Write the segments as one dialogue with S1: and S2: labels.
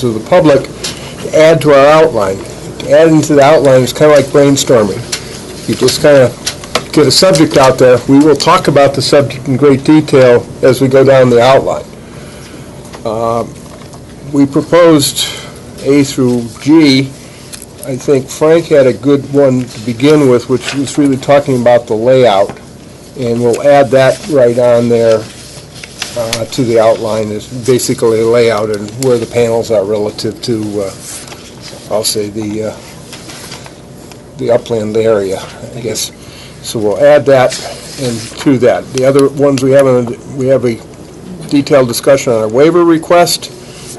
S1: to the public, add to our outline. Adding to the outline is kind of like brainstorming. You just kind of get a subject out there. We will talk about the subject in great detail as we go down the outline. Uh, We proposed A through G. I think Frank had a good one to begin with, which was really talking about the layout, and we'll add that right on there uh, to the outline is basically a layout and where the panels are relative to, uh, I'll say, the, uh, the upland area, I guess. So we'll add that and to that. The other ones we have, on- we have a detailed discussion on a waiver request,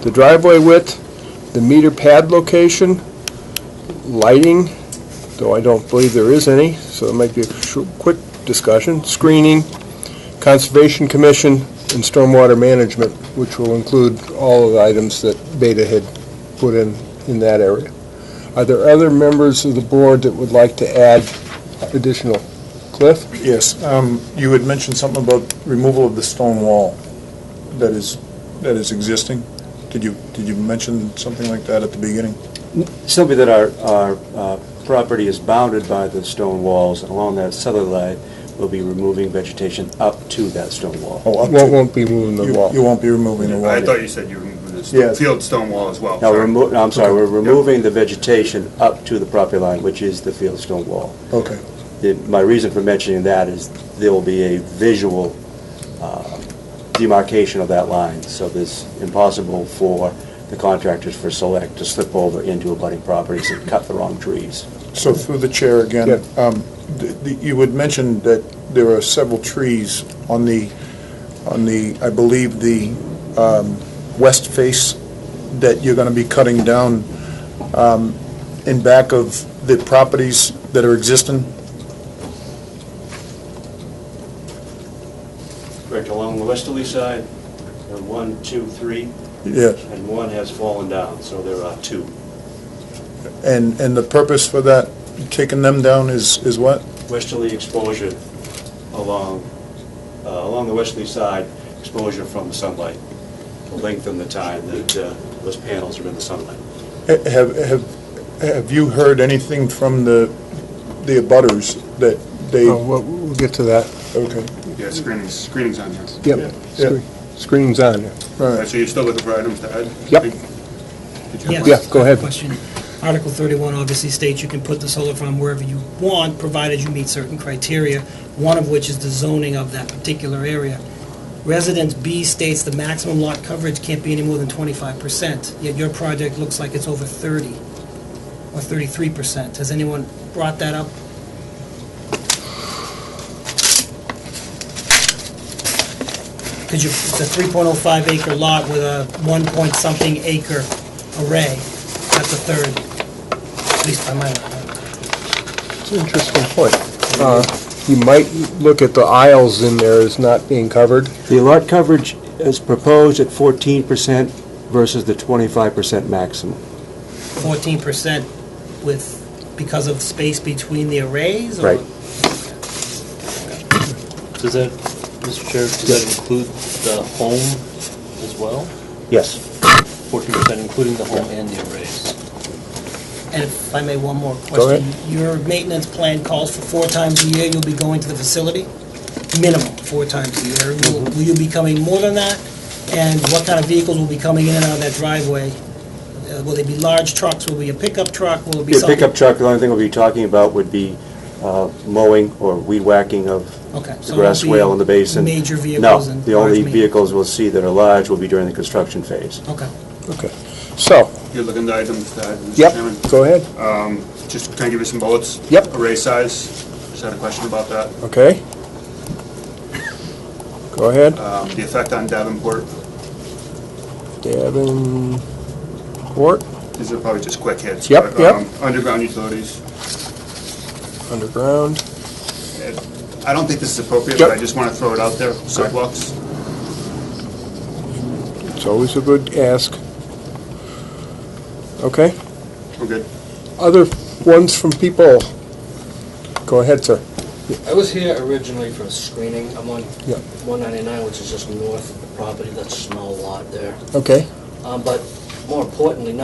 S1: the driveway width, the meter pad location, lighting, though I don't believe there is any, so it might be a short- quick discussion, screening, Conservation Commission, and stormwater management, which will include all of the items that Beta had put in, in that area. Are there other members of the board that would like to add additional? Cliff?
S2: Yes, um, you had mentioned something about removal of the stone wall that is, that is existing. Did you, did you mention something like that at the beginning?
S3: Simply that our, our uh, property is bounded by the stone walls, and along that southerly line, we'll be removing vegetation up to that stone wall.
S2: Oh, up to-
S1: Won't, won't be moving
S2: you-
S1: the wall.
S2: You won't be removing the
S4: I
S2: wall.
S4: thought you said you removed the
S2: Yeah.
S4: stone- field stone wall as well.
S3: Now,
S4: sorry.
S3: we're remo- no, I'm sorry, we're removing the vegetation up to the property line, which is the field stone wall.
S2: Okay,
S3: The- My reason for mentioning that is there will be a visual uh, demarcation of that line, so it's impossible for the contractors for Select to slip over into abutting properties and cut the wrong trees.
S2: so through the chair again, um, th- th- you had mentioned that there are several trees on the, on the, I believe, the um, west face that you're going to be cutting down um, in back of the properties that are existing?
S3: Correct, along the westerly side, uh, one, two, three,
S2: Yes.
S3: and one has fallen down, so there are two.
S2: And, and the purpose for that, taking them down is, is what?
S3: Westerly exposure along, uh, along the westerly side, exposure from the sunlight, to lengthen the time that uh, those panels are in the sunlight.
S2: Ha- Have, have, have you heard anything from the, the abutters that they,
S1: Oh, We'll, we'll get to that.
S2: okay,
S4: Yeah, screenings, screenings on there.
S1: Yep.
S2: Yeah.
S1: Screen- Screening's on there.
S2: all
S4: All
S2: right.
S4: right, so you're still looking for items to add?
S1: Yep.
S4: Did you have
S5: Yes.
S4: one?
S1: Yeah, go ahead.
S5: Question. Article 31 obviously states you can put the solar farm wherever you want, provided you meet certain criteria, one of which is the zoning of that particular area. Residence B states the maximum lot coverage can't be any more than 25%, yet your project looks like it's over 30 or 33%. Has anyone brought that up? Because you, it's a 3.05 acre lot with a 1 point something acre array. That's a third, at least by my mind.
S1: It's an interesting point. Uh, You might look at the aisles in there as not being covered.
S3: The lot coverage is proposed at 14% versus the 25% maximum.
S5: Fourteen percent with, because of space between the arrays? or-
S3: Right.
S6: Does that, Mr. Chair, does that include the home as well?
S3: Yes.
S6: Fourteen percent including the home and the arrays?
S5: And if I may, one more question.
S1: Go ahead.
S5: Your maintenance plan calls for four times a year you'll be going to the facility? Minimum, four times a year. Will
S3: Mm-hmm.
S5: will you be coming more than that? And what kind of vehicles will be coming in and out of that driveway? Uh, Will they be large trucks? Will it be a pickup truck? Will it be
S3: Your
S5: something?
S3: pickup truck, the only thing we'll be talking about would be uh, mowing or weed whacking of
S5: Okay, so
S3: the
S5: it
S3: grass
S5: won't be
S3: whale in the basin.
S5: Major vehicles
S3: No,
S5: and
S3: the
S5: large
S3: only
S5: ma-
S3: vehicles we'll see that are large will be during the construction phase.
S5: Okay.
S1: Okay. So,
S4: You're looking to items to add, Mr.
S1: yep,
S4: Chairman?
S1: go ahead.
S4: Just, can I give you some bullets?
S1: Yep.
S4: Array size, just had a question about that.
S1: Okay. Go ahead.
S4: Um, The effect on Davenport,
S1: Davenport.
S4: these are probably just quick hits.
S1: Yep,
S4: but,
S1: yep.
S4: um, Underground utilities,
S1: underground.
S4: I don't think this is appropriate,
S1: Yep.
S4: but I just want to throw it out there, sidewalks.
S1: It's always a good ask. Okay.
S4: We're good.
S1: Other ones from people. Go ahead, sir.
S7: I was here originally for screening. I'm on
S1: Yeah.
S7: 199, which is just north of the property. That's a small lot there.
S1: Okay.
S7: Um, But more importantly,